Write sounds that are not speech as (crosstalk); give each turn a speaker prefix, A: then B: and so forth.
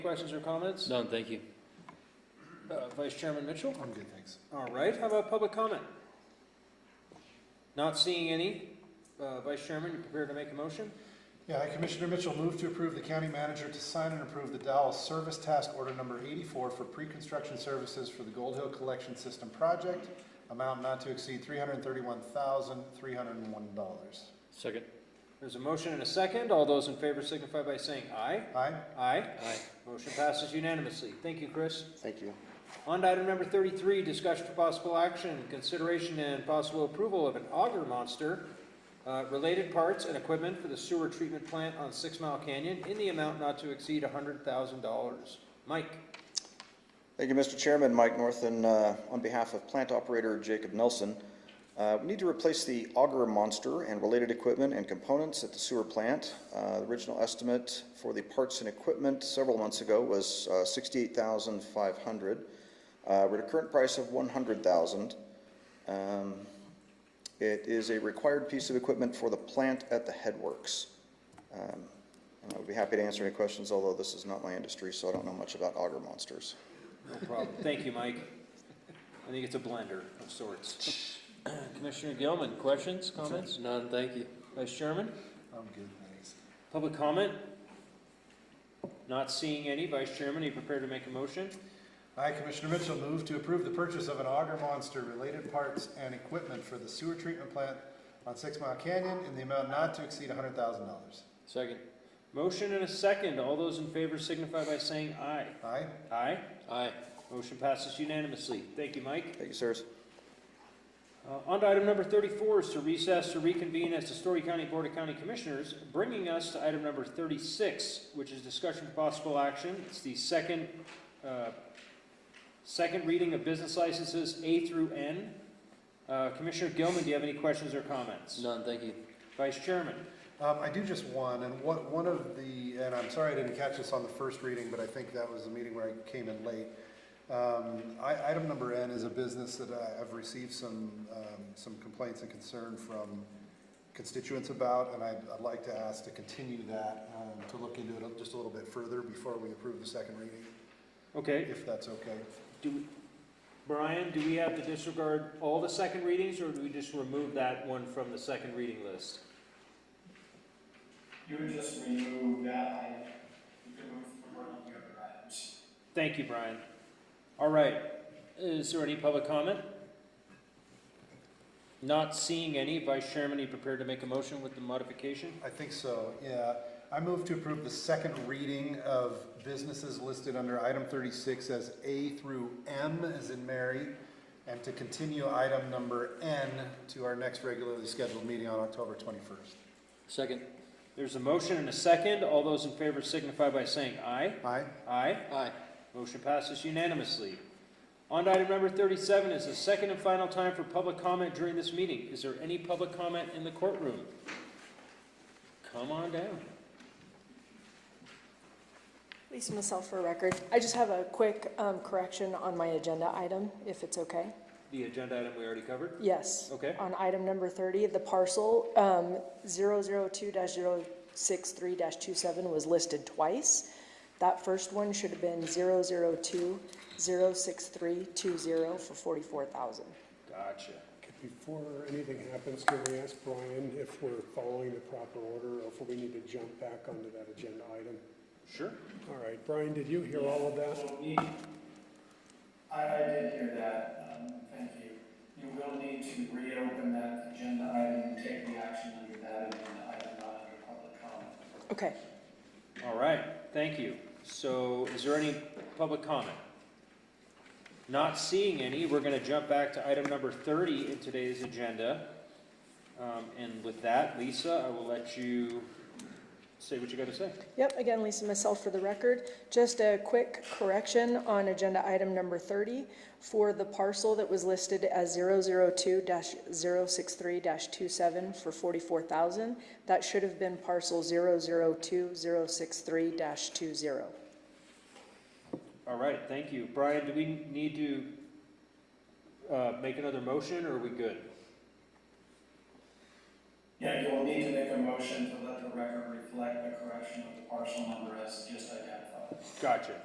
A: Questions or comments?
B: None, thank you.
A: Uh, Vice Chairman Mitchell?
C: I'm good, thanks.
A: All right, how about public comment? Not seeing any. Uh, Vice Chairman, you prepared to make a motion?
C: Yeah, Commissioner Mitchell moved to approve the county manager to sign and approve the Dow Service Task Order Number 84 for pre-construction services for the Gold Hill Collection System Project, amount not to exceed $331,301.
B: Second.
A: There's a motion and a second. All those in favor signify by saying aye.
C: Aye?
A: Aye.
B: Aye.
A: Motion passes unanimously. Thank you, Chris.
D: Thank you.
A: On to item number thirty-three, discussion for possible action, consideration and possible approval of an auger monster, uh, related parts and equipment for the sewer treatment plant on Six Mile Canyon in the amount not to exceed hundred thousand dollars. Mike?
D: Thank you, Mr. Chairman. Mike Northen, uh, on behalf of plant operator Jacob Nelson. Uh, We need to replace the auger monster and related equipment and components at the sewer plant. Uh, The original estimate for the parts and equipment several months ago was uh, $68,500. Uh, We're at a current price of $100,000. Um, It is a required piece of equipment for the plant at the headworks. Um, And I would be happy to answer any questions, although this is not my industry, so I don't know much about auger monsters.
A: No problem. Thank you, Mike. I think it's a blender of sorts. (clears throat) Commissioner Gilman, questions, comments?
B: None, thank you.
A: Vice Chairman,
C: I'm good, thanks.
A: public comment? Not seeing any. Vice Chairman, are you prepared to make a motion?
C: I, Commissioner Mitchell, moved to approve the purchase of an auger monster related parts and equipment for the sewer treatment plant on Six Mile Canyon in the amount not to exceed $100,000.
B: Second.
A: Motion and a second. All those in favor signify by saying aye.
C: Aye?
A: Aye.
B: Aye.
A: Motion passes unanimously. Thank you, Mike.
D: Thank you, sirs.
A: Uh, On to item number thirty-four is to recess to reconvene as the Story County Board of County Commissioners, bringing us to item number thirty-six, which is discussion of possible action. It's the second, uh, second reading of business licenses A through N. Uh, Commissioner Gilman, do you have any questions or comments?
B: None, thank you.
A: Vice Chairman,
C: Um, I do just one, and what, one of the, and I'm sorry I didn't catch this on the first reading, but I think that was the meeting where I came in late. Um, I, item number N is a business that I, I've received some, um, some complaints and concern from constituents about, and I'd, I'd like to ask to continue that, um, to look into it just a little bit further before we approve the second reading,
A: okay,
C: if that's okay.
A: do, Brian, do we have to disregard all the second readings, or do we just remove that one from the second reading list?
E: You would just remove that item, you could move from one of the other items.
A: Thank you, Brian. All right, is there any public comment? Not seeing any, Vice Chairman, are you prepared to make a motion with the modification?
C: I think so, yeah. I move to approve the second reading of businesses listed under item thirty-six as A through M, as in Mary, and to continue item number N to our next regularly scheduled meeting on October twenty-first.
B: Second.
A: There's a motion and a second, all those in favor signify by saying aye.
C: Aye?
A: Aye,
B: Aye.
A: motion passes unanimously. On to item number thirty-seven is the second and final time for public comment during this meeting. Is there any public comment in the courtroom? Come on down.
F: Lisa myself for record. I just have a quick um, correction on my agenda item, if it's okay.
A: The agenda item we already covered?
F: Yes.
A: Okay,
F: On item number 30, the parcel um, 002-063-27 was listed twice. That first one should have been 002-06320 for 44000
A: gotcha.
G: Before anything happens, can we ask Brian if we're following the proper order or if we need to jump back onto that agenda item?
A: Sure.
G: All right, Brian, did you hear all of that?
E: You'll need- I, I did hear that, um, thank you. You will need to reopen that agenda item and take the action under that agenda item, not under public comment.
F: Okay.
A: All right, thank you. So is there any public comment? Not seeing any, we're going to jump back to item number 30 in today's agenda. Um, And with that, Lisa, I will let you say what you got to say.
F: Yep, again, Lisa, myself for the record. Just a quick correction on agenda item number 30 for the parcel that was listed as 002-063-27 for 44,000. That should have been parcel 002-063-20.
A: All right, thank you. Brian, do we need to uh, make another motion, or are we good?
E: Yeah, you will need to make a motion to let the record reflect the correction of the parcel number as just identified.
A: Gotcha.